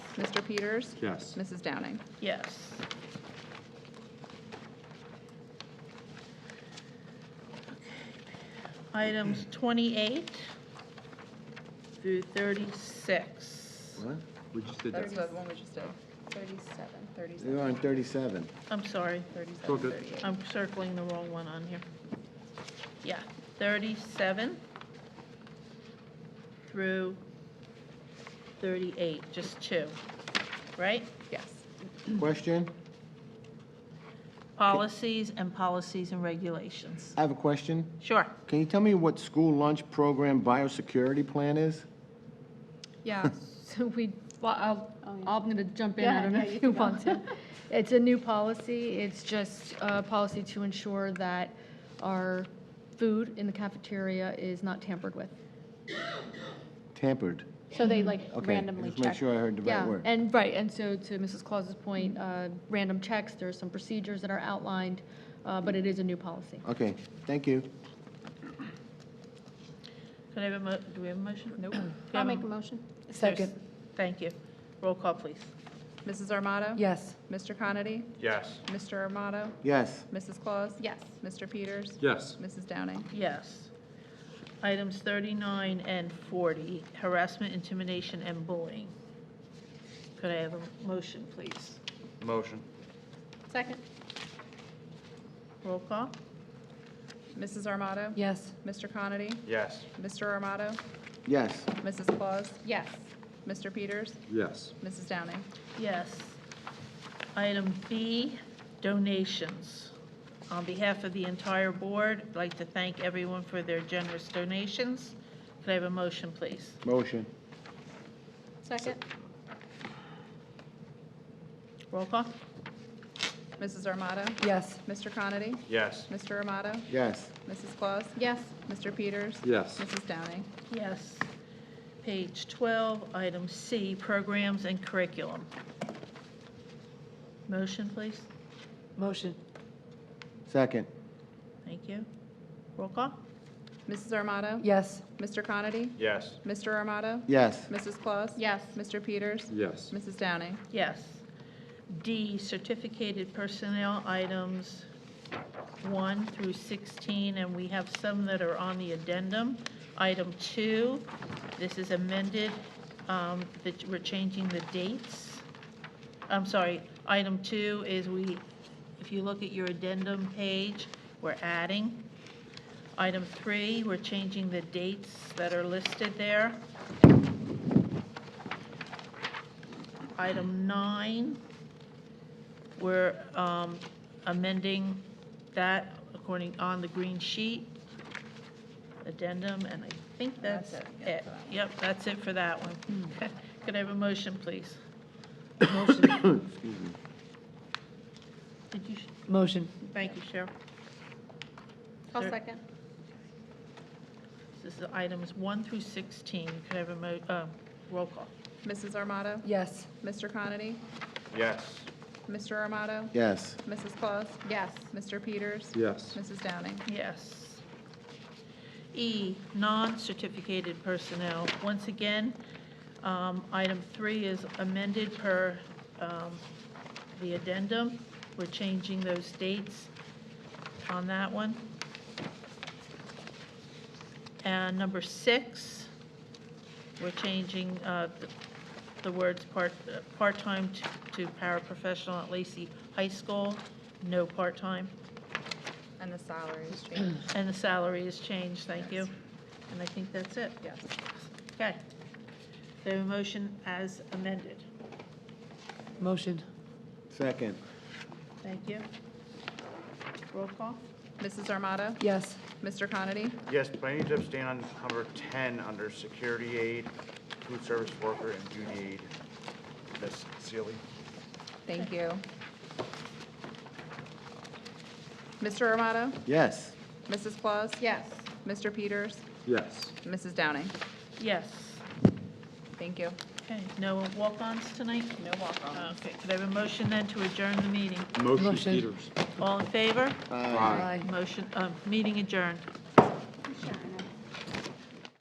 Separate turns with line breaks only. Mr. Peters?
Yes.
Mrs. Downing?
Yes. Items 28 through 36.
What?
We just did that.
the one we just did. 37,
We're on 37.
I'm sorry,
all good.
38.
I'm circling the wrong one on here. Yeah, 37 through 38, just two, right?
Yes.
Question?
Policies and policies and regulations.
I have a question.
Sure.
Can you tell me what school lunch program biosecurity plan is?
Yeah, so we, well, I'll, I'm going to jump in,
Oh, Yeah,
I don't know
yeah, you
if
can
you
go.
want to. It's a new policy, it's just a policy to ensure that our food in the cafeteria is not tampered with.
Tampered.
So they like
Okay,
randomly
just make
check.
sure I heard the right
Yeah,
word.
and, right, and so to Mrs. Claus's point, uh, random checks, there are some procedures that are outlined, uh, but it is a new policy.
Okay, thank you.
Can I have a mo, do we have a motion? Nope.
I'll make a motion.
Second. Thank you. Roll call, please.
Mrs. Armato?
Yes.
Mr. Conity?
Yes.
Mr. Armato?
Yes,
Mrs. Claus?
Yes.
Mr. Peters?
Yes.
Mrs. Downing?
Yes. Items 39 and 40, harassment, intimidation, and bullying. Could I have a motion, please?
Motion.
Second?
Roll call?
Mrs. Armato?
Yes.
Mr. Conity?
Yes.
Mr. Armato?
yes.
Mrs. Claus?
Yes.
Mr. Peters?
Yes.
Mrs. Downing?
Yes. Item B, donations. On behalf of the entire board, I'd like to thank everyone for their generous donations. Could I have a motion, please?
Motion.
Second?
Roll call?
Mrs. Armato?
Yes.
Mr. Conity?
Yes.
Mr. Armato?
Yes,
Mrs. Claus?
Yes.
Mr. Peters?
Yes.
Mrs. Downing?
Yes. Page 12, item C, programs and curriculum. Motion, please.
Motion.
second.
Thank you. Roll call?
Mrs. Armato?
Yes.
Mr. Conity?
Yes.
Mr. Armato?
Yes,
Mrs. Claus?
Yes.
Mr. Peters?
Yes.
Mrs. Downing?
Yes. D, certificated personnel items 1 through 16, and we have some that are on the addendum. Item 2, this is amended, um, that we're changing the dates. I'm sorry, item 2 is we, if you look at your addendum page, we're adding. Item 3, we're changing the dates that are listed there. Item nine, we're um, amending that according on the green sheet, addendum, and I think that's it. Yep, that's it for that Hmm. one. Could I have a motion, please?
excuse me.
Did you,
Motion.
thank you, Cheryl.
I'll
Sir.
second.
This is items one through 16. Could I have a mo, uh, roll call?
Mrs. Armato?
Yes.
Mr. Conity?
Yes.
Mr. Armato?
Yes,
Mrs. Claus?
Yes.
Mr. Peters?
Yes.
Mrs. Downing?
Yes. E, non-certificated personnel. Once again, um, item three is amended per um, the addendum. We're changing those dates on that one. And number six, we're changing uh, th- the words part, uh, part-time to- to paraprofessional at Lacey High School, no part-time.
And the salaries change.
And the salary is changed, thank you. And I think that's it.
Yes.
Okay. The motion as amended.
Motion.
second.
Thank you. Roll call?
Mrs. Armato?
Yes.
Mr. Conity?
Yes, but I need to abstain on number 10 under security aid, food service worker, and beauty aid. Ms. Sealy?
Thank you. Mr. Armato?
Yes,
Mrs. Claus?
Yes.
Mr. Peters?
Yes.
Mrs. Downing?
Yes.
Thank you.
Okay, no walk-ons tonight? No walk-ons. Okay, could I have a motion then to adjourn the meeting?
Motion
Motion.
Peters.
All in favor?
Aye.
Motion, uh, meeting adjourned.